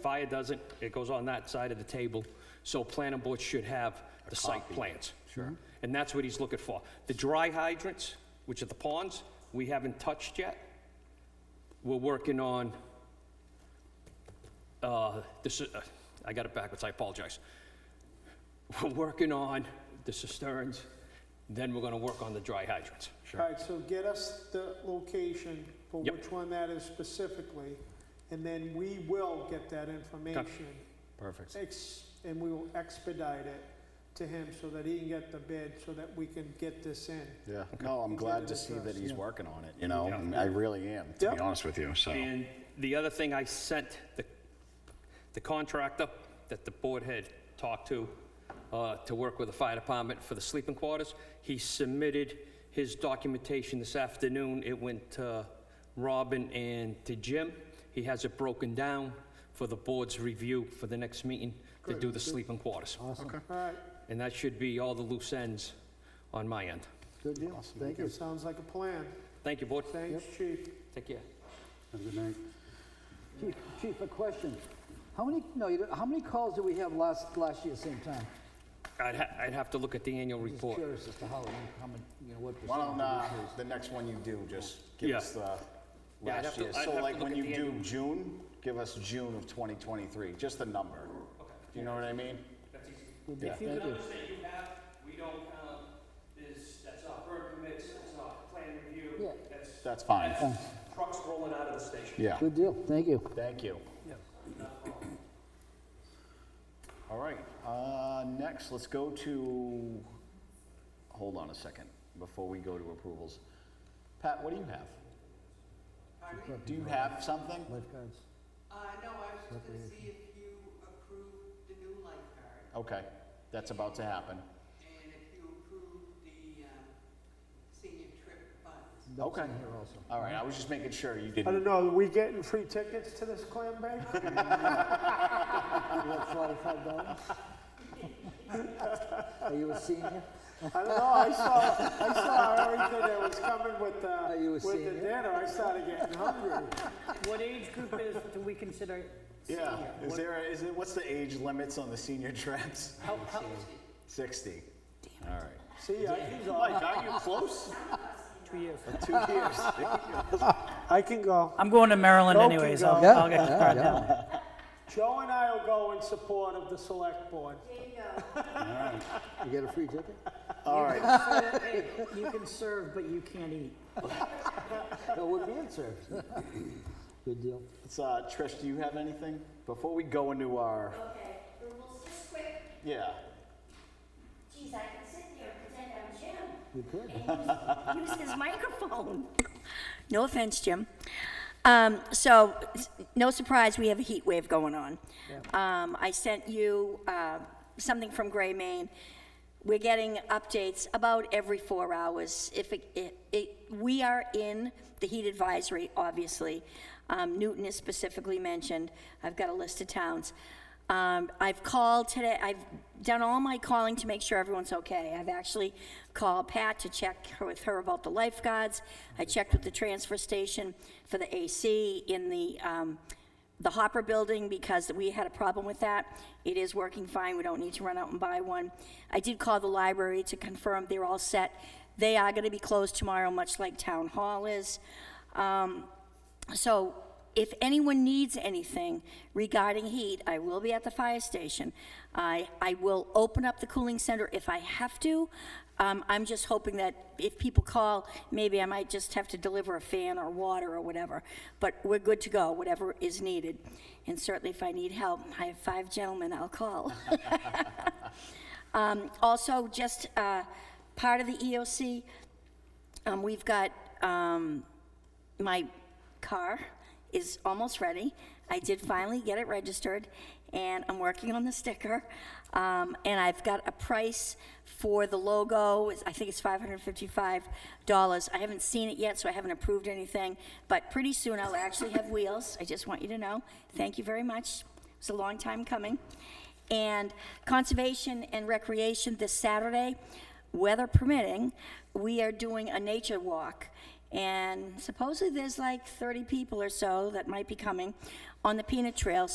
Fire doesn't, it goes on that side of the table, so planning board should have the site plans. Sure. And that's what he's looking for. The dry hydrants, which are the ponds, we haven't touched yet. We're working on, uh, this, is- uh, I got it backwards, I apologize. We're working on the cisterns, then we're gonna work on the dry hydrants. All right, so get us the location for Yep. which one that is specifically, and then we will get that information. Perfect. ex- And we will expedite it to him so that he can get the bid, so that we can get this in. Yeah. No, I'm glad to see that he's working on it, you know, and I really am, to be Yeah. honest with you, so. And the other thing I sent the the contractor that the board had talked to, uh, to work with the fire department for the sleeping quarters, he submitted his documentation this afternoon. It went to Robin and to Jim. He has it broken down for the board's review for the next meeting to do the sleeping quarters. All right, And that should be all the loose ends on my end. Good deal. Thank you. sounds like a plan. Thank you, board. Thanks, chief. Take care. Have a good night. Chief, Chief, a question. How many, no, you don't, how many calls did we have last, last year, same time? I'd ha- I'd have to look at the annual Just report. Curious as to how, how many, you know, what percentage. Why don't, uh, it is. the next one you do, just give Yeah. us the Yeah, I'd have last to- year. I'd So have to like look when at you the do annual. June, give us June of 2023, just the number. Do you know what I mean? Would be- Yeah. Thank you. Numbers that you have, we don't count, is, that's not burn permits, that's not plan review, Yeah. that's. That's fine. that's Trucks rolling out of the station. Yeah, Good deal, thank you. thank you. All right, uh, next, let's go to, hold on a second, before we go to approvals. Pat, what do you have? Do you have something? Lifeguards. Uh, no, I was just gonna see if you approve the new lifeguard, Okay, that's about to happen. and if you approve the, um, senior trip funds. That's Okay. in here also. All right, I was just making sure you I didn't. don't know, are we getting free tickets to this clam bake? You got forty-five dollars? Are you a senior? I don't know, I saw, I saw everything that was coming with Are you the, a with the senior? dinner, I started getting hungry. What age group is, do we consider senior? Yeah, is What- there, is it, what's the age limits on the senior traps? how- how- 60. All right. See, I can go, Mike, are you close? Two years. Two years. I can go. I'm going to Maryland Go, anyways, Kingo. I'll, Yeah, I'll get yeah, card yeah. down. Joe and I will go in support of the select board. You get a free ticket? All right, You can serve, but you can't eat. No, we're being served. Good deal. so, uh, Trish, do you have anything? Before we go into our, Okay, rules just quick. yeah, Geez, I can sit here and pretend I'm Jim You could. and use, use his microphone. No offense, Jim. Um, so, s- no surprise, we have a heat wave going on. Um, I sent you uh, something from Gray, Maine. We're getting updates about every four hours. If it, it, it, we are in the heat advisory, obviously. Um, Newton is specifically mentioned. I've got a list of towns. Um, I've called today, I've done all my calling to make sure everyone's okay. I've actually called Pat to check her- with her about the lifeguards. I checked with the transfer station for the AC in the, um, the Hopper building because we had a problem with that. It is working fine, we don't need to run out and buy one. I did call the library to confirm they're all set. They are gonna be closed tomorrow, much like Town Hall is. So if anyone needs anything regarding heat, I will be at the fire station. I, I will open up the cooling center if I have to. Um, I'm just hoping that if people call, maybe I might just have to deliver a fan or water or whatever. But we're good to go, whatever is needed. And certainly if I need help, I have five gentlemen I'll call. Um, also, just, uh, part of the EOC, um, we've got, um, my car is almost ready. I did finally get it registered, and I'm working on the sticker. Um, and I've got a price for the logo. It's- I think it's $555. I haven't seen it yet, so I haven't approved anything. But pretty soon I'll actually have wheels. I just want you to know. Thank you very much. It's a long time coming. And conservation and recreation this Saturday, weather permitting, we are doing a nature walk. And supposedly there's like 30 people or so that might be coming on the peanut trail. So